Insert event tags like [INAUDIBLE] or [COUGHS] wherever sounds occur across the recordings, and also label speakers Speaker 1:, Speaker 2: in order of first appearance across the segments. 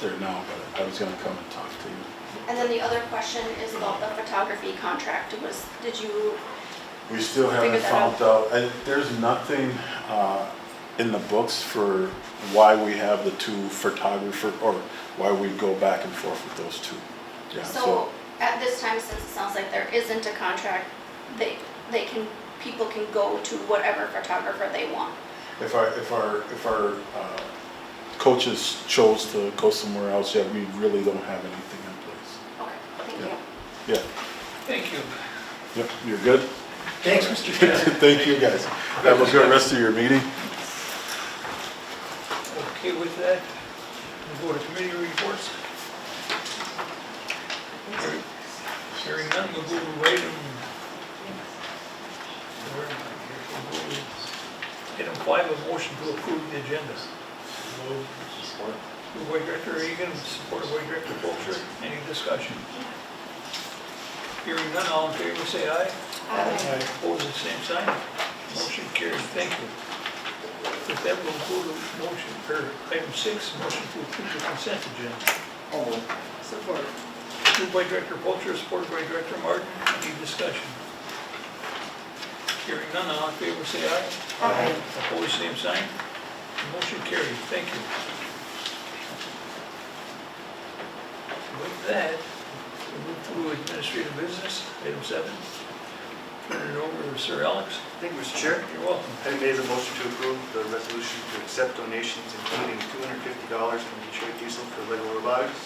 Speaker 1: there now, but I was gonna come and talk to you.
Speaker 2: And then the other question is about the photography contract was, did you,
Speaker 1: We still haven't
Speaker 2: Figure that out.
Speaker 1: found out, I, there's nothing, uh, in the books for why we have the two photographer, or why we go back and forth with those two. Yeah,
Speaker 2: so at this time, since it sounds like there isn't a contract, they, they can, people can go to whatever photographer they want.
Speaker 1: If our, if our, if our, uh, coaches chose to go somewhere else, yeah, we really don't have anything in
Speaker 2: Okay, thank
Speaker 1: Yeah.
Speaker 2: you.
Speaker 1: place.
Speaker 3: Thank you.
Speaker 1: Yeah, yep, you're good? [LAUGHS]
Speaker 3: Thanks, Mr. Chairman.
Speaker 1: Thank you, guys. Have a good rest of your meeting.
Speaker 3: Okay with that, we'll go to committee reports. Hearing none, we'll go to item. where am I here? We'll go to Item five, a motion to approve the agenda. Moved by Director Egan, supported by Director Polter. Any discussion? Hearing none, all in favor, say aye. Aye. Opposed, the same sign. Motion carries. Thank you. With that, we'll go to motion, or item six, motion to approve the consent agenda.
Speaker 4: Support.
Speaker 3: Moved by Director Polter, supported by Director Martin. Any discussion? Hearing none, all in favor, say aye.
Speaker 4: Aye.
Speaker 3: Opposed, same sign. Motion carried. Thank you. With that, we move to administrative business, item seven. Turn it over to Sir Alex.
Speaker 5: Thank you, Mr. Chair.
Speaker 3: You're welcome.
Speaker 5: Item A is a motion to approve the resolution to accept donations, including $250 from Detroit Diesel for Lego robotics,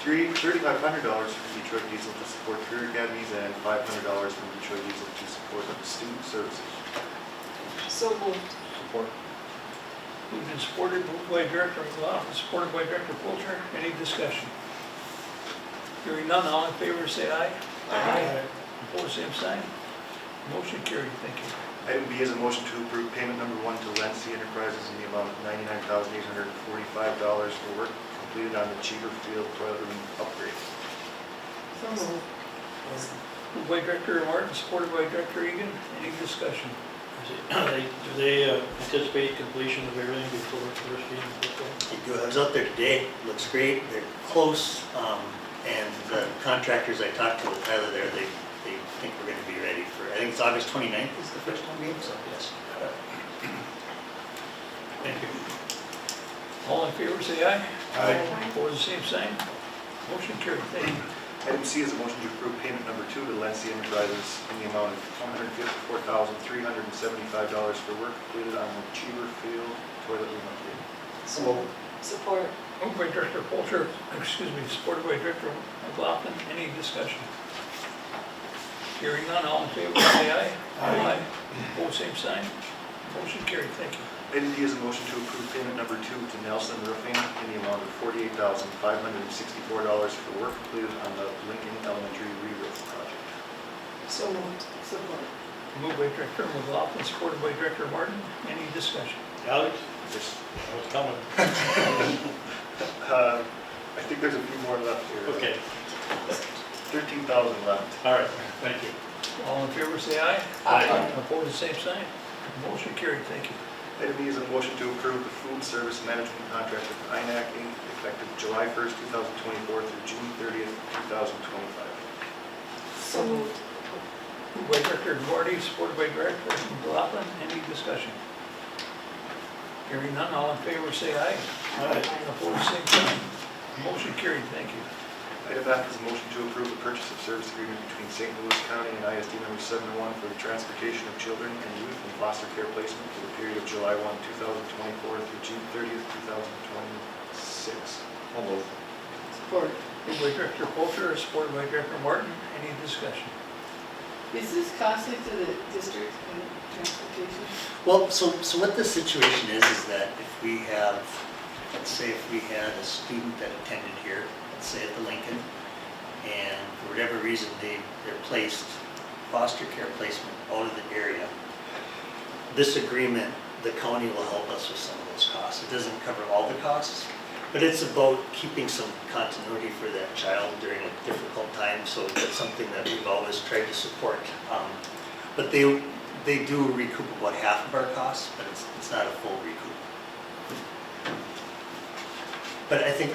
Speaker 5: three- $3,500 from Detroit Diesel to support career academies, and $500 from Detroit Diesel to support student services.
Speaker 4: So moved.
Speaker 5: Support.
Speaker 3: Moved and supported, moved by Director McLaughlin, supported by Director Polter. Any discussion? Hearing none, all in favor, say aye. Aye. Opposed, same sign. Motion carried, thank you.
Speaker 5: Item B is a motion to approve payment number one to Lancy Enterprises in the amount of $99,845 for work completed on the Cheever Field toilet room upgrade.
Speaker 4: So moved.
Speaker 3: Moved by Director Martin, supported by Director Egan. Any discussion?
Speaker 6: Is it- [CLEARS THROAT] they- Do they uh, anticipate completion of everything before the first meeting? of April?
Speaker 7: They do. I was out there today, looks great, they're close, um, and the contractors I talked to with Tyler there, they, they think we're gonna be ready for, I think it's August 29th is the first home game, so yes.
Speaker 3: Thank you. All in favor, say aye.
Speaker 2: Aye.
Speaker 3: Opposed, same sign. Motion carried, thank you.
Speaker 5: Item C is a motion to approve payment number two to Lancy Enterprises in the amount of $154,375 for work completed on the Cheever Field toilet room upgrade.
Speaker 4: So moved. Support.
Speaker 3: Moved by Director Polter, [COUGHS] excuse me, supported by Director McLaughlin. Any discussion? Hearing none, all in favor, say aye. Aye. Opposed, same sign. Motion carried, thank you.
Speaker 5: Item D is a motion to approve payment number two to Nelson Roofing in the amount of $48,564 for work completed on the Lincoln Elementary re-roof project.
Speaker 4: So moved. Support.
Speaker 3: Moved by Director McLaughlin, supported by Director Martin. Any discussion?
Speaker 6: Alex,
Speaker 5: There's-
Speaker 6: I was coming.
Speaker 5: uh, I think there's a few more left here.
Speaker 6: Okay,
Speaker 5: 13,000 left.
Speaker 6: all right, thank you.
Speaker 3: All in favor, say aye.
Speaker 6: Aye.
Speaker 3: Opposed, same sign. Motion carried, thank you.
Speaker 5: Item E is a motion to approve the food service management contract with INAC Inc. effective July 1st, 2024 through June 30th, 2025.
Speaker 4: So moved.
Speaker 3: Moved by Director Duarte, supported by Director McLaughlin. Any discussion? Hearing none, all in favor, say aye.
Speaker 4: Aye.
Speaker 3: Opposed, same sign. Motion carried, thank you.
Speaker 5: Item F is a motion to approve the purchase of service agreement between St. Louis County and ISD number 71 for the transportation of children and youth in foster care placement for the period of July 1, 2024 through June 30th, 2026.
Speaker 4: Support.
Speaker 3: Moved by Director Polter, supported by Director Martin. Any discussion?
Speaker 4: Is this costly to the district and transportation?
Speaker 7: Well, so, so what the situation is, is that if we have, let's say if we had a student that attended here, let's say at the Lincoln, and for whatever reason, they, they're placed, foster care placement out of the area, this agreement, the county will help us with some of those costs. It doesn't cover all the costs, but it's about keeping some continuity for that child during a difficult time, so that's something that we've always tried to support. Um, But they, they do recoup about half of our costs, but it's, it's not a full recoup. But I think